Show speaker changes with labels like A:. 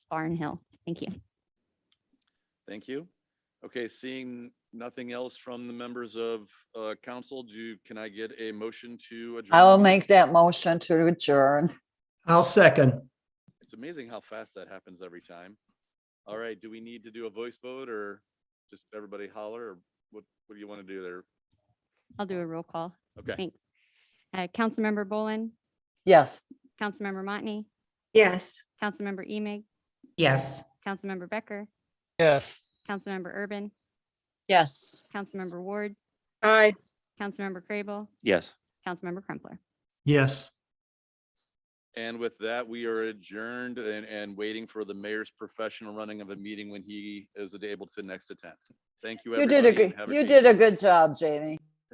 A: Barnhill. Thank you.
B: Thank you. Okay, seeing nothing else from the members of uh, council, do, you- can I get a motion to adjourn?
C: I will make that motion to adjourn.
D: I'll second.
B: It's amazing how fast that happens every time. All right, do we need to do a voice vote or just everybody holler? or What, what do you want to do there?
A: I'll do a roll call.
B: Okay,
A: Thanks. Uh, Councilmember Bolin,
C: Yes.
A: Councilmember Motney,
E: Yes.
A: Councilmember Emig,
E: Yes.
A: Councilmember Becker,
F: Yes.
A: Councilmember Urban,
C: Yes.
A: Councilmember Ward,
E: Aye.
A: Councilmember Crable,
G: Yes.
A: Councilmember Crumpler.
D: Yes.
B: and with that, we are adjourned and, and waiting for the mayor's professional running of a meeting when he is able to next attend. Thank you.
C: You did a
B: everybody, and
C: good,
B: have
C: you
B: great
C: did
B: evening.
C: a good job, Jamie.